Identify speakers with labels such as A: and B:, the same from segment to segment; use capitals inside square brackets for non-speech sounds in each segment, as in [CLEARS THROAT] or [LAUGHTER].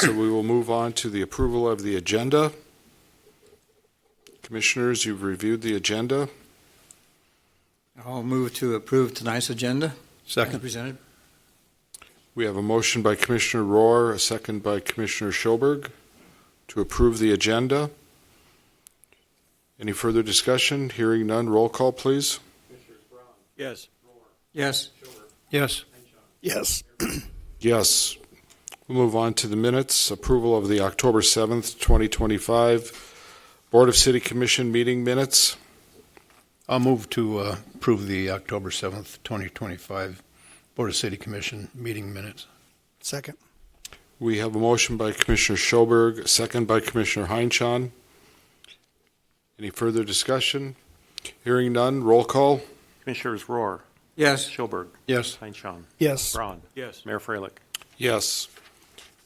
A: So we will move on to the approval of the agenda. Commissioners, you've reviewed the agenda.
B: I'll move to approve tonight's agenda. As
C: Second.
B: presented.
A: We have a motion by Commissioner Rohr, a second by Commissioner Schoberg to approve the agenda. Any further discussion? Hearing none, roll call, please.
C: Yes.
B: Yes,
C: Yes. Yes.
A: Yes. We'll move on to the minutes. Approval of the October 7th, 2025 Board of City Commission meeting minutes.
C: I'll move to uh, approve the October 7th, 2025 Board of City Commission meeting minutes.
D: Second.
A: We have a motion by Commissioner Schoberg, a second by Commissioner Heinchan. Any further discussion? Hearing none, roll call.
E: Commissioners Roar,
B: yes,
E: Schoberg,
C: Yes.
E: Heinchan,
D: Yes.
E: Braun. Yes. Mayor Freilich.
A: Yes.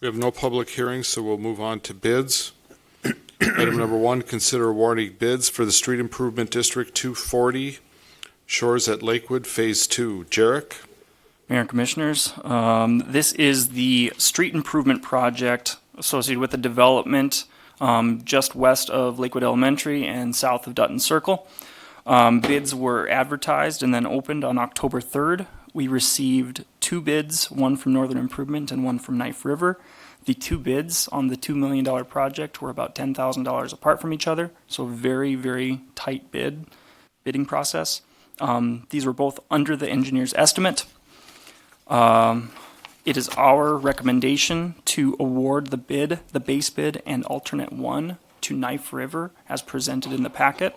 A: We have no public hearings, so we'll move on to bids. [CLEARS THROAT] Item number one, consider awarding bids for the Street Improvement District 240 Shores at Lakewood Phase 2. Jarek?
F: Mayor and Commissioners, um, this is the street improvement project associated with the development um, just west of Lakewood Elementary and south of Dutton Circle. Um, Bids were advertised and then opened on October 3rd. We received two bids, one from Northern Improvement and one from Knife River. The two bids on the $2 million project were about $10,000 apart from each other, so very, very tight bid, bidding process. Um, These were both under the engineer's estimate. It is our recommendation to award the bid, the base bid, and alternate one to Knife River as presented in the packet.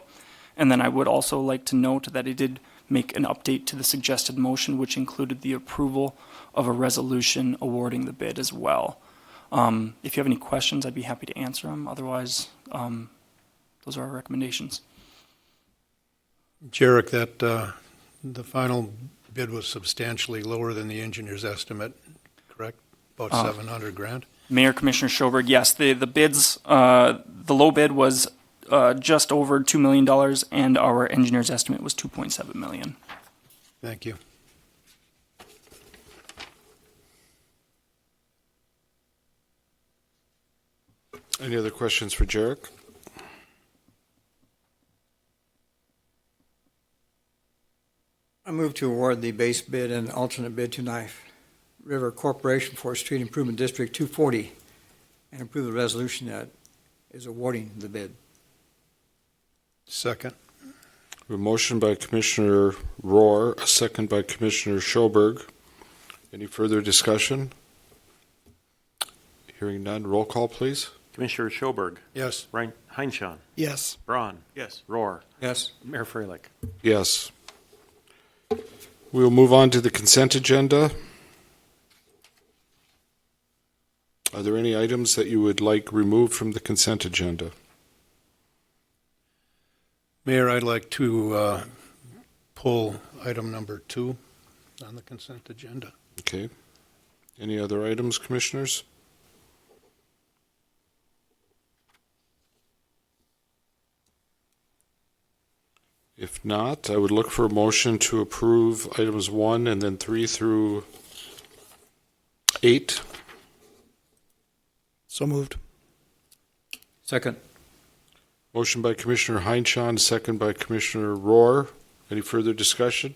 F: And then I would also like to note that I did make an update to the suggested motion, which included the approval of a resolution awarding the bid as well. Um, If you have any questions, I'd be happy to answer them. Otherwise, um, those are our recommendations.
C: Jarek, that, uh, the final bid was substantially lower than the engineer's estimate, correct? About
D: Uh.
C: 700 grand?
F: Mayor Commissioner Schoberg, yes, the, the bids, uh, the low bid was, uh, just over $2 million and our engineer's estimate was 2.7 million.
C: Thank you.
A: Any other questions for Jarek?
B: I move to award the base bid and alternate bid to Knife River Corporation for Street Improvement District 240 and approve the resolution that is awarding the bid.
C: Second.
A: A motion by Commissioner Rohr, a second by Commissioner Schoberg. Any further discussion? Hearing none, roll call, please.
E: Commissioner Schoberg,
C: Yes.
E: Rein- Heinchan,
D: Yes.
E: Braun. Yes. Roar,
B: Yes,
E: Mayor Freilich.
A: Yes. We will move on to the consent agenda. Are there any items that you would like removed from the consent agenda?
C: Mayor, I'd like to uh, pull item number two on the consent agenda.
A: Okay. Any other items, commissioners? If not, I would look for a motion to approve items one and then three through eight.
D: So moved.
B: second.
A: Motion by Commissioner Heinchan, second by Commissioner Rohr. Any further discussion?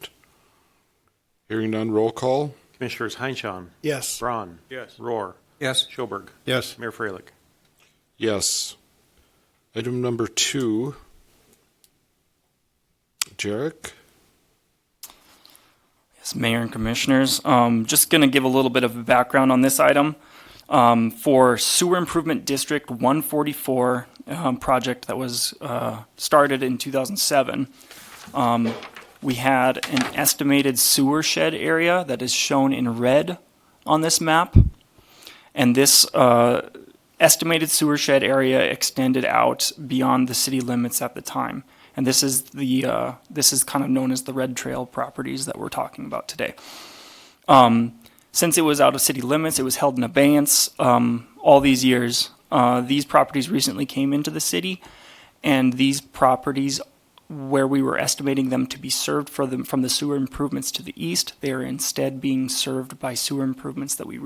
A: Hearing none, roll call.
E: Commissioners Heinchan,
D: Yes.
E: Braun. Yes. Roar,
B: Yes,
E: Schoberg,
C: Yes.
E: Mayor Freilich.
A: Yes. Item number two. Jarek?
F: Yes, Mayor and Commissioners, um, just going to give a little bit of background on this item. Um, for Sewer Improvement District 144, um, project that was, uh, started in 2007, um, we had an estimated sewer shed area that is shown in red on this map. And this, uh, estimated sewer shed area extended out beyond the city limits at the time. And this is the, uh, this is kind of known as the Red Trail properties that we're talking about today. Um, since it was out of city limits, it was held in abeyance um, all these years. Uh, these properties recently came into the city, and these properties, where we were estimating them to be served for them from the sewer improvements to the east, they are instead being served by sewer improvements that we